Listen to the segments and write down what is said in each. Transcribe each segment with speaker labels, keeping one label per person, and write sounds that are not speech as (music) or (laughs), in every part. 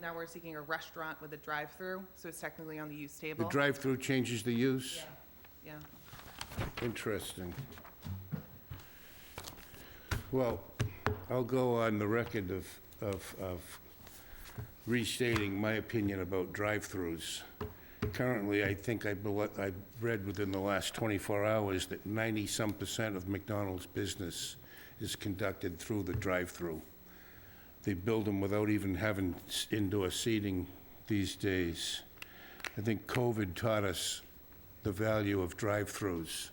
Speaker 1: now we're seeking a restaurant with a drive-through, so it's technically on the use
Speaker 2: The
Speaker 1: table.
Speaker 2: drive-through changes the use?
Speaker 1: Yeah,
Speaker 2: Interesting. Well, I'll go on the record of, of, of restating my opinion about drive-throughs. Currently, I think I, bel- I read within the last 24 hours that 90-some percent of McDonald's business is conducted through the drive-through. They build them without even having s- indoor seating these days. I think COVID taught us the value of drive-throughs.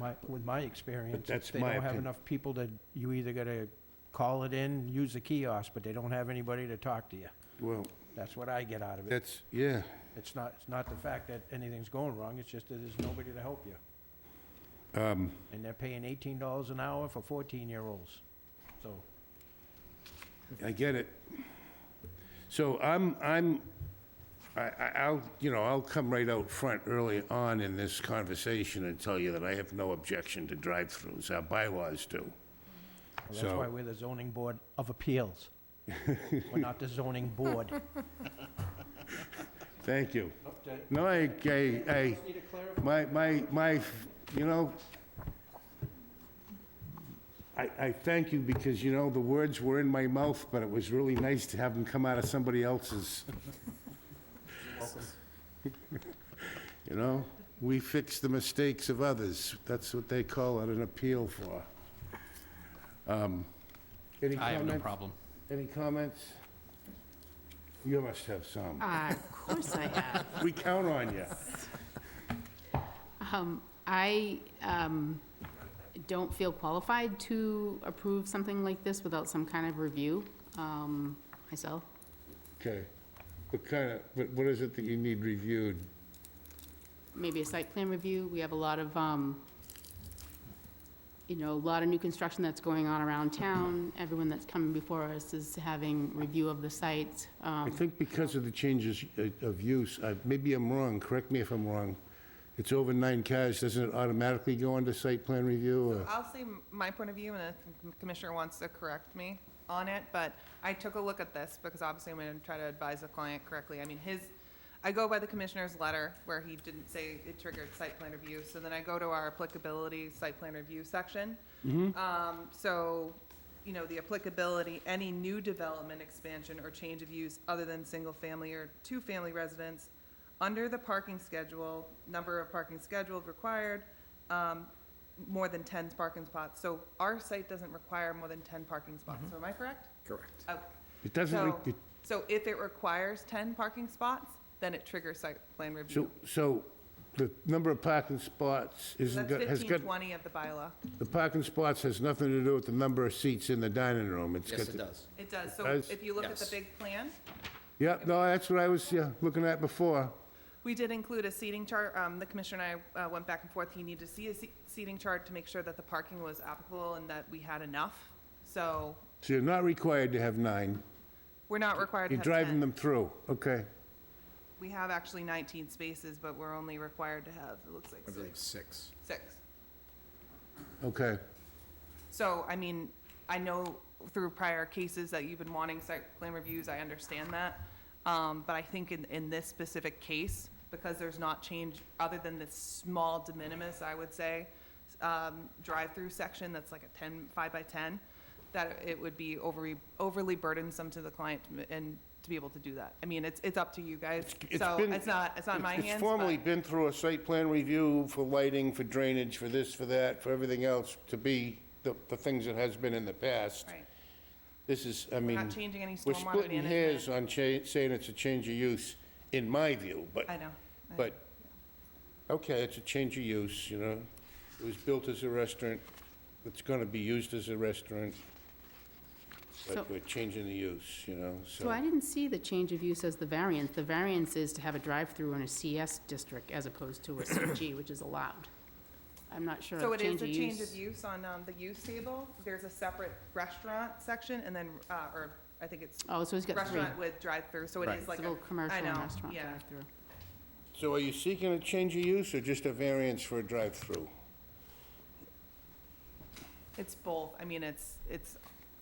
Speaker 3: My, with my experience,
Speaker 2: that's
Speaker 3: if they
Speaker 2: my
Speaker 3: don't have
Speaker 2: opinion.
Speaker 3: enough people that, you either gotta call it in, use the kiosk, but they don't have anybody to talk to you.
Speaker 2: Well,
Speaker 3: That's what I get out of it.
Speaker 2: that's, yeah,
Speaker 3: It's not, it's not the fact that anything's going wrong, it's just that there's nobody to help you.
Speaker 2: um,
Speaker 3: And they're paying eighteen dollars an hour for fourteen-year-olds, so.
Speaker 2: I get it. So I'm, I'm, I, I- I'll, you know, I'll come right out front early on in this conversation and tell you that I have no objection to drive-throughs. Our bylaws do.
Speaker 3: Well, That's why
Speaker 2: So-
Speaker 3: we're the zoning board of appeals. We're not the zoning board.
Speaker 2: Thank you. No, I, I, I, my, my, my, you know, I, I thank you because, you know, the words were in my mouth, but it was really nice to have them come out of somebody else's. (laughs) You know, we fix the mistakes of others. That's what they call it, an appeal for. Um, Any
Speaker 4: I have no
Speaker 2: comments?
Speaker 4: problem.
Speaker 2: Any comments? You must have some.
Speaker 5: Uh, Of course I have.
Speaker 2: We count on you.
Speaker 5: (laughs) Um, I um, don't feel qualified to approve something like this without some kind of review um, myself.
Speaker 2: Okay. What kind of, what, what is it that you need reviewed?
Speaker 5: Maybe a site plan review. We have a lot of, um, you know, a lot of new construction that's going on around town. Everyone that's coming before us is having review of the sites.
Speaker 2: I
Speaker 5: Um,
Speaker 2: think because of the changes uh, of use, I, maybe I'm wrong, correct me if I'm wrong. It's over nine cars, doesn't it automatically go under site plan review or?
Speaker 1: I'll say m- my point of view, and if the commissioner wants to correct me on it, but I took a look at this, because obviously I'm gonna try to advise the client correctly. I mean, his, I go by the commissioner's letter, where he didn't say it triggered site plan review, so then I go to our applicability site plan review section. Um, so, you know, the applicability, any new development, expansion, or change of use other than single-family or two-family residence, under the parking schedule, number of parking scheduled required, um, more than ten parking spots. So our site doesn't require more than ten parking spots, so am I correct?
Speaker 4: Mm-hmm. Correct.
Speaker 1: Okay.
Speaker 2: It doesn't,
Speaker 1: So,
Speaker 2: re- it-
Speaker 1: so if it requires ten parking spots, then it triggers site plan
Speaker 2: so,
Speaker 1: review.
Speaker 2: so the number of parking spots isn't,
Speaker 1: That's
Speaker 2: got- has
Speaker 1: fifteen
Speaker 2: got,
Speaker 1: twenty of the bylaw.
Speaker 2: the parking spots has nothing to do with the number of seats in the dining room. It's
Speaker 4: Yes,
Speaker 2: got
Speaker 4: it
Speaker 2: the-
Speaker 4: does.
Speaker 1: It does, so
Speaker 2: does?
Speaker 1: if you look at the
Speaker 4: Yes.
Speaker 1: big plan,
Speaker 2: Yeah, no, that's what I was, yeah, looking at before.
Speaker 1: we did include a seating chart. Um, the commissioner and I, uh, went back and forth. He needed to see a se- seating chart to make sure that the parking was applicable and that we had enough. So
Speaker 2: So you're not required to have nine.
Speaker 1: we're not required to
Speaker 2: You're
Speaker 1: have
Speaker 2: driving
Speaker 1: 10.
Speaker 2: them through, okay?
Speaker 1: We have actually nineteen spaces, but we're only required to have, it looks like,
Speaker 4: I believe
Speaker 1: six.
Speaker 4: six.
Speaker 1: Six.
Speaker 2: Okay.
Speaker 1: So, I mean, I know through prior cases that you've been wanting site plan reviews, I understand that. Um, but I think in, in this specific case, because there's not change, other than this small de minimis, I would say, um, drive-through section that's like a 10, 5 by ten, that it would be overly, overly burdensome to the client to m- and to be able to do that. I mean, it's, it's up to you guys.
Speaker 2: it's
Speaker 1: So
Speaker 2: been-
Speaker 1: it's not, it's not in my hands,
Speaker 2: It's
Speaker 1: but-
Speaker 2: formally been through a site plan review for lighting, for drainage, for this, for that, for everything else, to be the, the things it has been in the past.
Speaker 1: Right.
Speaker 2: This is, I mean.
Speaker 1: not changing any
Speaker 2: We're
Speaker 1: stormwater
Speaker 2: splitting
Speaker 1: management.
Speaker 2: hairs on cha, saying it's a change of use, in my view, but.
Speaker 1: I know. I-
Speaker 2: But, okay, it's a change of use, you know? It was built as a restaurant, it's gonna be used as a restaurant,
Speaker 5: So-
Speaker 2: but we're changing the use, you know, so.
Speaker 5: So I didn't see the change of use as the variance. The variance is to have a drive-through in a CS district as opposed to a CG, which is allowed. I'm not sure
Speaker 1: So
Speaker 5: of
Speaker 1: it is
Speaker 5: change
Speaker 1: a
Speaker 5: of
Speaker 1: change of
Speaker 5: use.
Speaker 1: use on um, the use table. There's a separate restaurant section and then, uh, or I think it's
Speaker 5: Oh, so he's got three.
Speaker 1: restaurant with drive-through, so it
Speaker 4: Right.
Speaker 1: is
Speaker 5: It's
Speaker 1: like a,
Speaker 5: a little commercial
Speaker 1: I
Speaker 5: and
Speaker 1: know,
Speaker 5: restaurant
Speaker 1: yeah.
Speaker 5: drive-through.
Speaker 2: So are you seeking a change of use or just a variance for a drive-through?
Speaker 1: it's both. I mean, it's, it's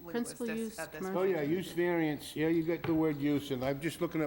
Speaker 1: linguistics
Speaker 5: use,
Speaker 1: at this
Speaker 5: commercial
Speaker 2: Oh, yeah, use variance, yeah, you got the word use, and I'm just looking at